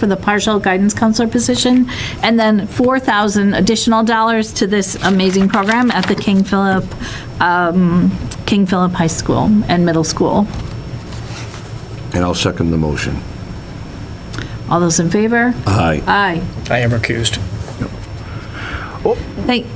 for the partial guidance counselor position, and then 4,000 additional dollars to this amazing program at the King Philip, um, King Philip High School and Middle School. And I'll second the motion. All those in favor? Aye. Aye. I am recused. Thank,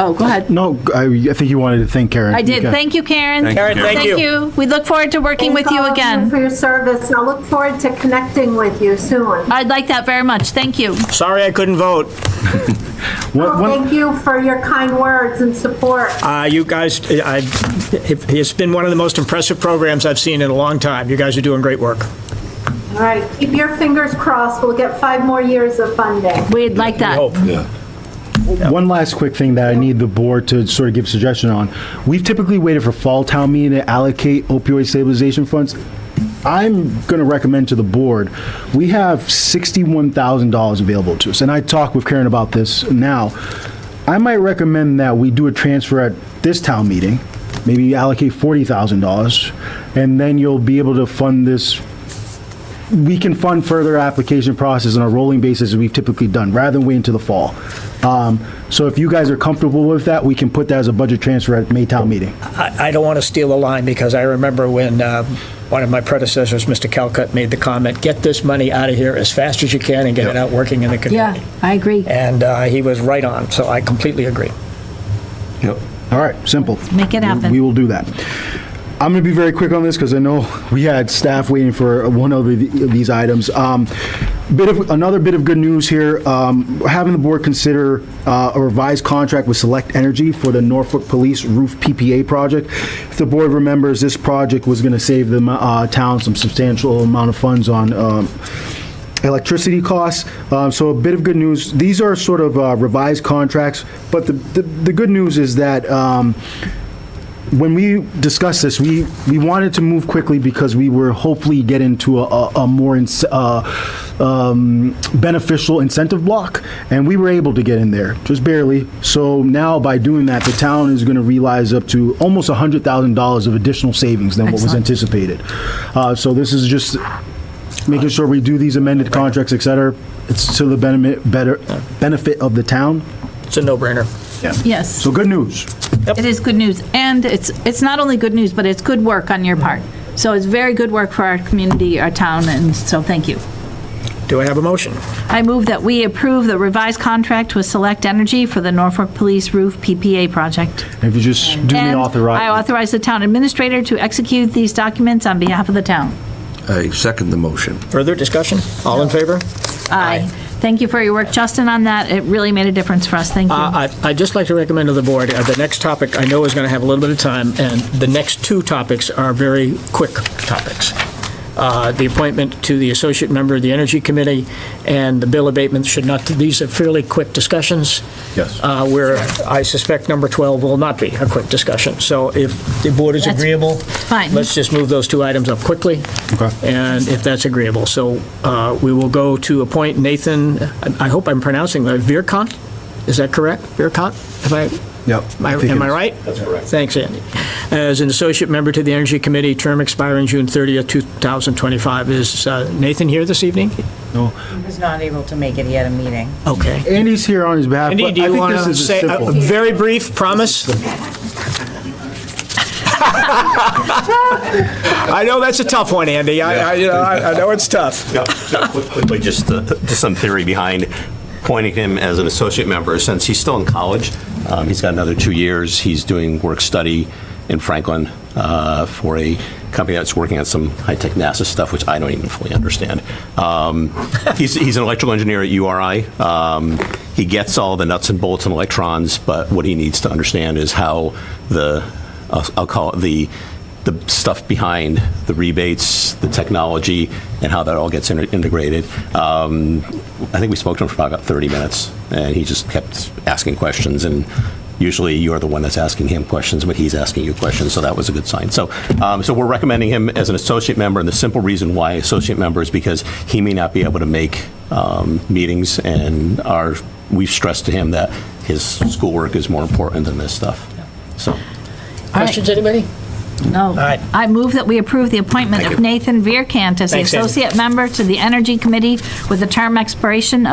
oh, go ahead. No, I, I think you wanted to thank Karen. I did. Okay. Thank you, Karen. Karen, thank you. We look forward to working with you all of again. For your service. I look forward to connecting with you soon. I'd like that very much. Thank you. Sorry I couldn't vote. One- one- Thank you for your kind words and support. Uh, You guys, I- it's been one of the most impressive programs I've seen in a long time. You guys are doing great work. All right, keep your fingers crossed. We'll get five more years of funding. We'd like that. hope. Yeah. One last quick thing that I need the board to sort of give suggestion on. We've typically waited for fall town meeting to allocate opioid stabilization funds. I'm going to recommend to the board, we have $61,000 available to us, and I talked with Karen about this now. I might recommend that we do a transfer at this town meeting, maybe allocate $40,000, and then you'll be able to fund this we can fund further application process on a rolling basis as we've typically done, rather than wait until the fall. Um, So if you guys are comfortable with that, we can put that as a budget transfer at Maytown meeting. I I don't want to steal a line because I remember when uh, one of my predecessors, Mr. Calcutt, made the comment, "Get this money out of here as fast as you can and get it out working in the Yeah, community." I agree. And uh, he was right on, so I completely agree. Yep. All right, simple. Make it happen. We will do that. I'm going to be very quick on this because I know we had staff waiting for one of the- these items. Um, Bit of, another bit of good news here, um, having the board consider uh, a revised contract with Select Energy for the Norfolk Police Roof PPA project. If the board remembers, this project was going to save the uh, town some substantial amount of funds on um, electricity costs. Uh, So a bit of good news. These are sort of uh, revised contracts, but the, the the good news is that um, when we discussed this, we, we wanted to move quickly because we were hopefully get into a, a a more ins- uh, um, beneficial incentive block, and we were able to get in there, just barely. So now by doing that, the town is going to realize up to almost $100,000 of additional savings than what was Excellent. anticipated. Uh, So this is just making sure we do these amended contracts, et cetera. It's to the benefit, better, benefit of the town. It's a no-brainer. Yes, So good news. it is good news. And it's, it's not only good news, but it's good work on your part. So it's very good work for our community, our town, and so thank you. Do I have a motion? I move that we approve the revised contract with Select Energy for the Norfolk Police Roof PPA project. If you just do the And I authorize. authorize the town administrator to execute these documents on behalf of the town. I second the motion. Further discussion? All in favor? Aye. Thank you for your work, Justin, on that. It really made a difference for us. Thank you. Uh, I- I'd just like to recommend to the board, uh, the next topic I know is going to have a little bit of time, and the next two topics are very quick topics. Uh, The appointment to the associate member of the Energy Committee and the bill abatement should not, these are fairly quick discussions. Yes. uh, Where I suspect number 12 will not be a quick discussion. So if the board is That's agreeable, fine. let's just move those two items up quickly. Okay. And if that's agreeable. So uh, we will go to appoint Nathan, I I hope I'm pronouncing that, Vierkant? Is that correct? Vierkant? Am I, Yep. am I- am I right? That's correct. Thanks, Andy. As an associate member to the Energy Committee, term expiring June 30th, 2025. Is uh, Nathan here this evening? was not able to make it, he had a meeting. Okay. Andy's here on his behalf. Andy, but do I you think want this to is a say uh, a simple- a very brief promise? I know that's a tough one, Andy. I, I- you know, I I know it's tough. No, no, quick- Quickly, just, uh, just some theory behind appointing him as an associate member, since he's still in college. um, He's got another two years. He's doing work-study in Franklin uh, for a company that's working on some high-tech NASA stuff, which I don't even fully understand. Um, He's, he's an electrical engineer at URI. Um, He gets all the nuts and bolts and electrons, but what he needs to understand is how the, I'll I'll call it the the stuff behind the rebates, the technology, and how that all gets inter- integrated. Um, I think we spoke to him for probably about 30 minutes, and he just kept asking questions. And usually, you're the one that's asking him questions, but he's asking you questions, so that was a good sign. So, um, so we're recommending him as an associate member, and the simple reason why associate member is because he may not be able to make um, meetings, and our we've stressed to him that his schoolwork is more important than this stuff. So. Questions, anybody? No. right. Oh. I move that we approve the appointment of Nathan Vierkant as the Thanks, Andy. associate member to the Energy Committee with a term expiration of